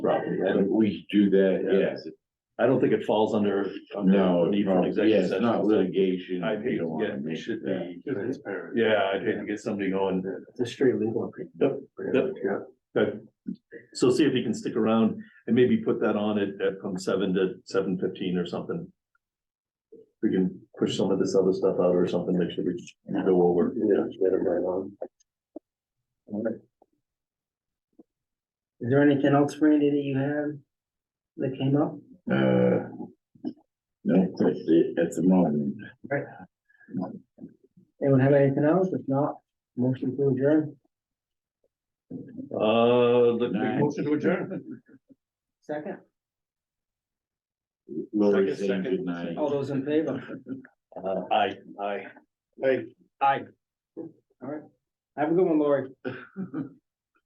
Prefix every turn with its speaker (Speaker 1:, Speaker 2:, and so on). Speaker 1: And we do that,
Speaker 2: Yeah.
Speaker 1: yes.
Speaker 2: I don't think it falls under,
Speaker 1: No,
Speaker 2: under
Speaker 1: it's
Speaker 2: need for an
Speaker 1: not, yeah,
Speaker 2: executive
Speaker 1: it's
Speaker 2: session.
Speaker 1: not
Speaker 2: so
Speaker 1: litigation.
Speaker 2: I
Speaker 1: You
Speaker 2: think,
Speaker 1: don't wanna
Speaker 2: yeah, it
Speaker 1: make
Speaker 2: should
Speaker 1: that.
Speaker 2: be,
Speaker 3: Transparent.
Speaker 2: yeah, I'd hate to get somebody going.
Speaker 3: The straight legal. opinion.
Speaker 2: Yep, yep.
Speaker 3: Yeah.
Speaker 2: Good. So see if you can stick around and maybe put that on at, at from seven to seven fifteen or something. We can push some of this other stuff out or something, make sure we go over.
Speaker 3: Yeah, let them right on. Is there anything else, Randy, that you have that came up?
Speaker 1: Uh, no, that's it at the moment.
Speaker 3: Anyone have anything else? If not, motion to adjourn.
Speaker 2: Uh, the
Speaker 1: Nice.
Speaker 2: motion to adjourn.
Speaker 3: Second,
Speaker 1: Lori
Speaker 2: Second,
Speaker 1: saying
Speaker 2: second. Oh,
Speaker 1: good night.
Speaker 3: all those in favor?
Speaker 2: Uh, aye, aye.
Speaker 3: Aye. All right. Have a good one, Lori.